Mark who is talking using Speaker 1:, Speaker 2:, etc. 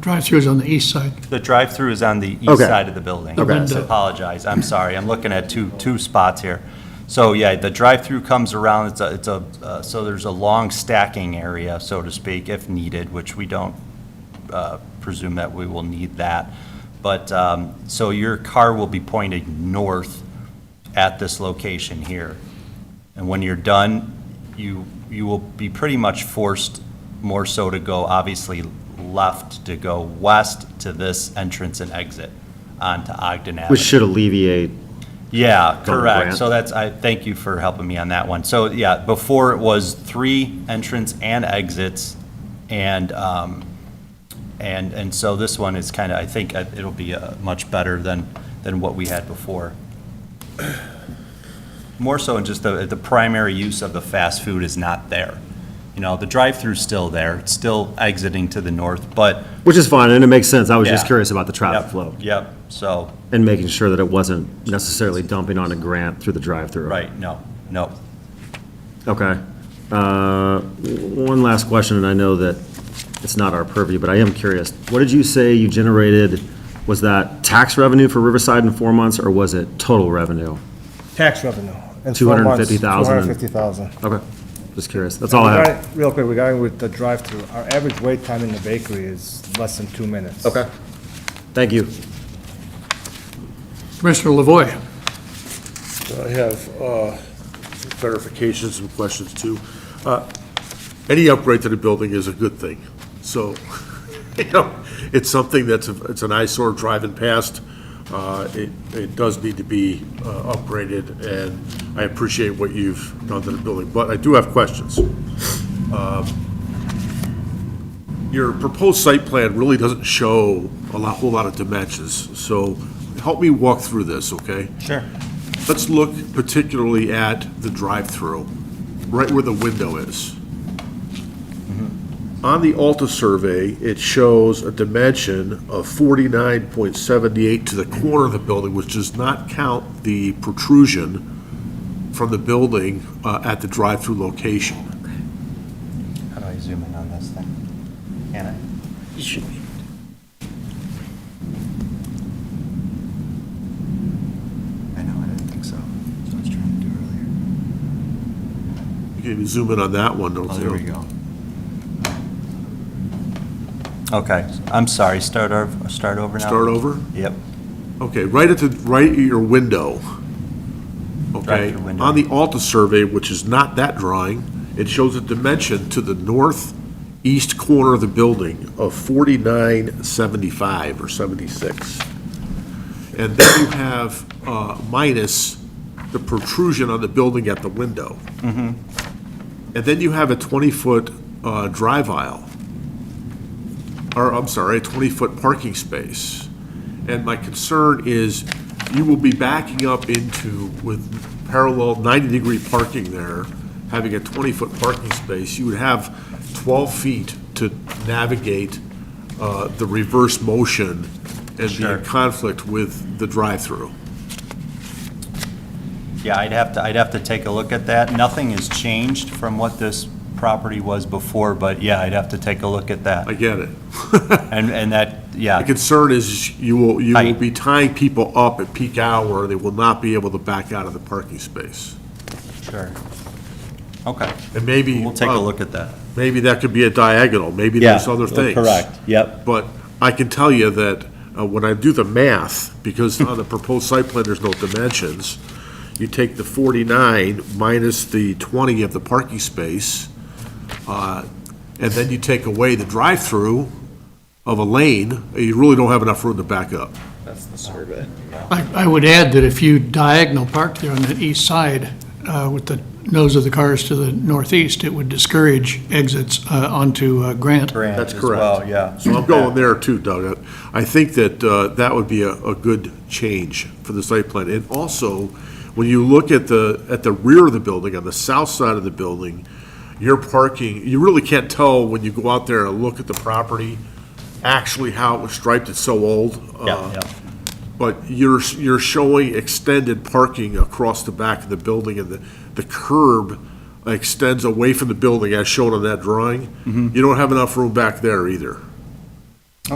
Speaker 1: Drive-through is on the east side.
Speaker 2: The drive-through is on the east
Speaker 3: Okay.
Speaker 2: side of the building.
Speaker 1: Okay.
Speaker 2: I apologize, I'm sorry, I'm looking at two, two spots here. So, yeah, the drive-through comes around, it's a, it's a, uh, so there's a long stacking area, so to speak, if needed, which we don't uh, presume that we will need that. But, um, so your car will be pointing north at this location here. And when you're done, you, you will be pretty much forced more so to go, obviously, left to go west to this entrance and exit onto Ogden Avenue.
Speaker 3: Which should alleviate,
Speaker 2: Yeah,
Speaker 3: Go to
Speaker 2: correct.
Speaker 3: Grant.
Speaker 2: So that's, I, thank you for helping me on that one. So, yeah, before it was three entrance and exits, and, um, and, and so this one is kind of, I think uh, it'll be uh, much better than, than what we had before. More so in just the, the primary use of the fast food is not there. You know, the drive-through's still there, it's still exiting to the north, but.
Speaker 3: which is fine, and it makes sense. I was just
Speaker 2: Yeah.
Speaker 3: curious about the traffic
Speaker 2: Yep,
Speaker 3: flow
Speaker 2: Yep, so,
Speaker 3: and making sure that it wasn't necessarily dumping on a Grant through the drive-through.
Speaker 2: right, no, no,
Speaker 3: Okay. Uh, w- One last question, and I know that it's not our purview, but I am curious. What did you say you generated? Was that tax revenue for Riverside in four months, or was it total revenue?
Speaker 4: Tax revenue. in four months,
Speaker 3: 250,000.
Speaker 4: 250,000.
Speaker 3: Okay, just curious. That's all I have.
Speaker 4: Regarding- Real quick, regarding with the drive-through, our average wait time in the bakery is less than two minutes.
Speaker 3: Okay. Thank you.
Speaker 1: Commissioner Lavoy,
Speaker 5: I have uh, some clarifications and questions, too. Uh, Any upgrade to the building is a good thing, so, you know, it's something that's, a- it's an eyesore driving past. Uh, It, it does need to be uh, upgraded, and I appreciate what you've done to the building, but I do have questions. Um, Your proposed site plan really doesn't show a lot, whole lot of dimensions, so help me walk through this, okay?
Speaker 2: Sure.
Speaker 5: Let's look particularly at the drive-through, right where the window is.
Speaker 6: Mm-hmm.
Speaker 5: On the Alta survey, it shows a dimension of 49.78 to the corner of the building, which does not count the protrusion from the building uh, at the drive-through location.
Speaker 2: How do I zoom in on this thing? Can I?
Speaker 6: I know, I didn't think so. That's what I was trying to do earlier.
Speaker 5: You can even zoom in on that one, don't
Speaker 6: Oh,
Speaker 5: you?
Speaker 6: there we go.
Speaker 2: Okay, I'm sorry, start over, start over now?
Speaker 5: Start over?
Speaker 2: Yep,
Speaker 5: Okay, right at the, right at your window. Okay,
Speaker 2: Drive-through window.
Speaker 5: on the Alta survey, which is not that drawing, it shows a dimension to the northeast corner of the building of forty-nine seventy-five or seventy-six. And then you have, uh, minus the protrusion on the building at the window. And then you have a twenty-foot, uh, drive aisle or I'm sorry, a 20-foot parking space. And my concern is you will be backing up into with parallel 90-degree parking there, having a 20-foot parking space, you would have 12 feet to navigate uh, the reverse motion and be
Speaker 2: Sure.
Speaker 5: in conflict with the drive-through.
Speaker 2: yeah, I'd have to, I'd have to take a look at that. Nothing has changed from what this property was before, but yeah, I'd have to take a look at that.
Speaker 5: I get it.
Speaker 2: And, and that,
Speaker 5: My
Speaker 2: yeah,
Speaker 5: concern is you will, you will
Speaker 2: Right.
Speaker 5: be tying people up at peak hour, they will not be able to back out of the parking space.
Speaker 2: sure. Okay,
Speaker 5: And maybe.
Speaker 2: we'll take a
Speaker 5: uh,
Speaker 2: look at that.
Speaker 5: Maybe that could be a diagonal, maybe
Speaker 2: Yeah,
Speaker 5: there's other things.
Speaker 2: correct, yep.
Speaker 5: But I can tell you that uh, when I do the math, because on the proposed site plan, there's no dimensions, you take the 49 minus the 20 of the parking space, uh, and then you take away the drive-through of a lane, you really don't have enough room to back up.
Speaker 1: I I would add that if you diagonal park there on that east side uh, with the nose of the cars to the northeast, it would discourage exits uh, onto uh, Grant.
Speaker 2: Grant
Speaker 5: That's
Speaker 2: as
Speaker 5: correct.
Speaker 2: well, Yeah.
Speaker 5: So I'm going there too, Doug. I think that uh, that would be a, a good change for the site plan. And also, when you look at the, at the rear of the building, on the south side of the building, your parking, you really can't tell when you go out there and look at the property, actually how it was striped, it's so old.
Speaker 2: Yeah,
Speaker 5: uh,
Speaker 2: yeah.
Speaker 5: But you're, you're showing extended parking across the back of the building, and the, the curb extends away from the building as shown on that drawing. You don't have enough room back there either.